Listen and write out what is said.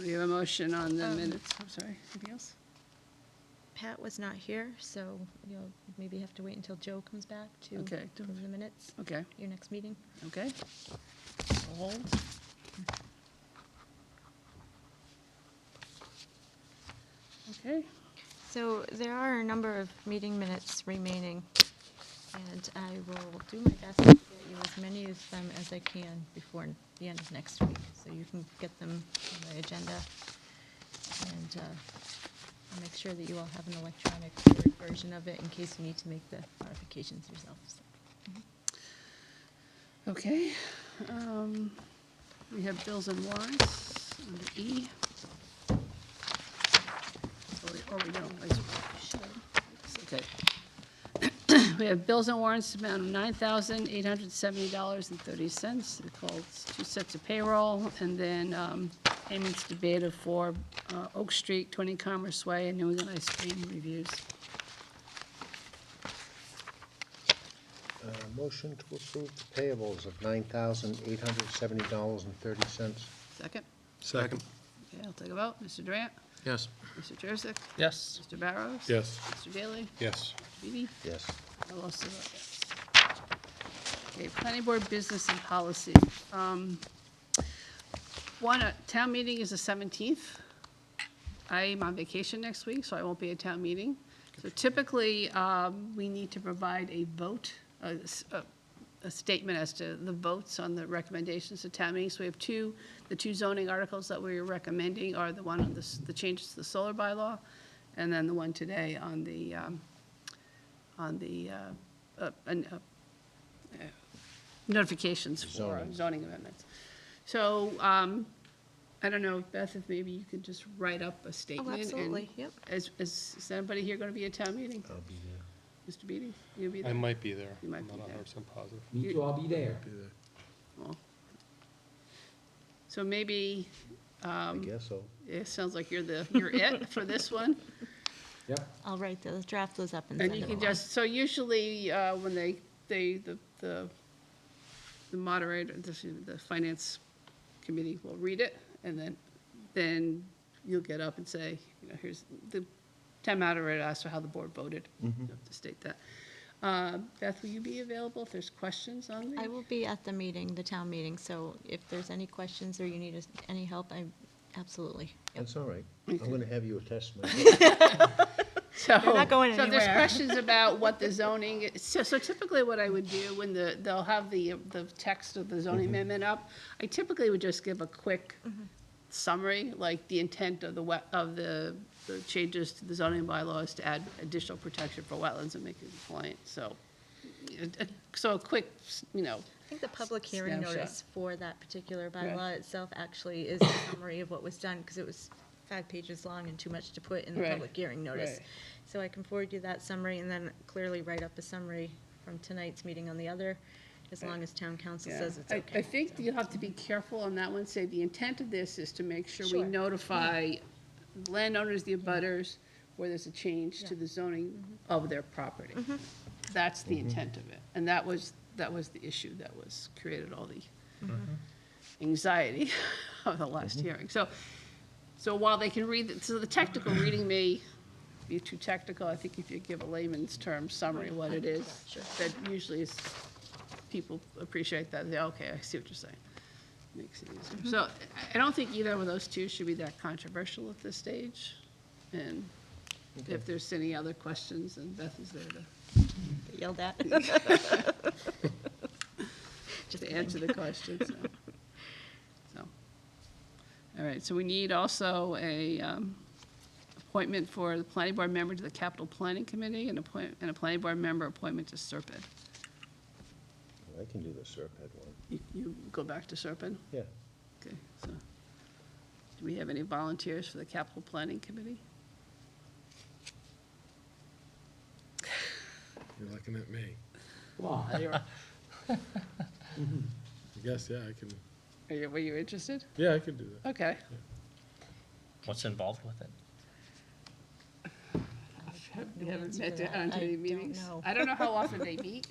We have a motion on the Um, minutes, I'm sorry, anything else? Pat was not here, so you'll maybe have to wait until Joe comes back to Okay. approve the minutes, Okay, your next meeting. okay. We'll Hold. Okay, So there are a number of meeting minutes remaining, and I will do my best to get you as many of them as I can before the end of next week, so you can get them on the agenda. And uh, I'll make sure that you all have an electronic Word version of it in case you need to make the modifications yourselves. okay. Um, We have bills and warrants under E. Or we- Or we don't, I suppose. Okay. We have bills and warrants amount of nine thousand eight hundred seventy dollars and thirty cents. It calls two sets of payroll, and then um, payments to Beta for uh, Oak Street, Twenty Commerce Way, and New England Ice Cream Reviews. Uh, Motion to approve the payables of $9,870.30. Second? Second. Okay, I'll take a vote. Mr. Durant? Yes. Mr. Jurassic? Yes. Mr. Barrows? Yes. Mr. Daley? Yes. Beebe? Yes. I also vote yes. Okay, planning board business and policy. Um, One, uh, town meeting is the 17th. I'm on vacation next week, so I won't be at town meeting. So typically, um, we need to provide a vote, a s- a- a statement as to the votes on the recommendations to town meeting. So we have two, the two zoning articles that we're recommending are the one on the s- the changes to the solar bylaw, and then the one today on the um, on the uh, uh, an- uh, uh, notifications for Zoning. zoning amendments. So um, I don't know, Beth, if maybe you could just write up a statement. and- absolutely, yep. Is, is is anybody here going to be at town meeting? I'll be there. Mr. Beatty, you'll be I there? might be there. You might I'm be not there. 100% positive. Me too, I'll be there. Well, So maybe, I guess so. it sounds like you're the, you're it for this one. Yep. I'll write those, draft those up and send And them you along. can just, so usually, uh, when they, they, the, the the moderator, the, the finance committee will read it, and then, then you'll get up and say, you know, here's, the town moderator asked for how the board voted. You have to state that. Uh, Beth, will you be available if there's questions on the? I will be at the meeting, the town meeting, so if there's any questions or you need us- any help, I, absolutely. That's all right. I'm Okay. going to have you attest to my So, They're not going So if there's anywhere. questions about what the zoning, so, so typically what I would do when the, they'll have the, the text of the zoning amendment up, I typically would just give a quick Mm-hmm. summary, like the intent of the wet, of the, the changes to the zoning bylaws to add additional protection for wetlands and make it compliant, so. it- it- So a quick, you know, I think the public hearing Snapshot. notice for that particular bylaw Right. itself actually is a summary of what was done, because it was five pages long and too much to put in the Right, public hearing notice. right. So I can forward you that summary and then clearly write up a summary from tonight's meeting on the other, as long as town council Yeah. says it's I- okay. I think so. you'll have to be careful on that one, say the intent of this is to make sure we Sure. notify landowners, the abutters, where there's a change to Yeah. Mm-hmm. the zoning of their property. That's the intent of it, and that was, that was the issue that was, created all the anxiety of the last hearing. So, so while they can read, so the technical reading may be too technical, I think if you give a layman's term summary of what it is, Sure. that usually is, people appreciate that, they, okay, I see what you're saying. Makes it easier. So I- I don't think either one of those two should be that controversial at this stage. And if there's any other questions, then Beth is there to, Get Yelled at. Just to kidding. answer the questions, so. So, All right, so we need also a um, appointment for the planning board member to the capital planning committee and appoint, and a planning board member appointment to Serpent. I can do the Serpent one. You, you go back to Serpent? Yeah. Okay, so, do we have any volunteers for the capital planning committee? You're looking at me. Come on. Are I guess, yeah, I can, you, were you interested? yeah, I can do that. Okay. What's involved with it? We haven't answer met to that. down to I any don't meetings. know. I don't know how often they meet.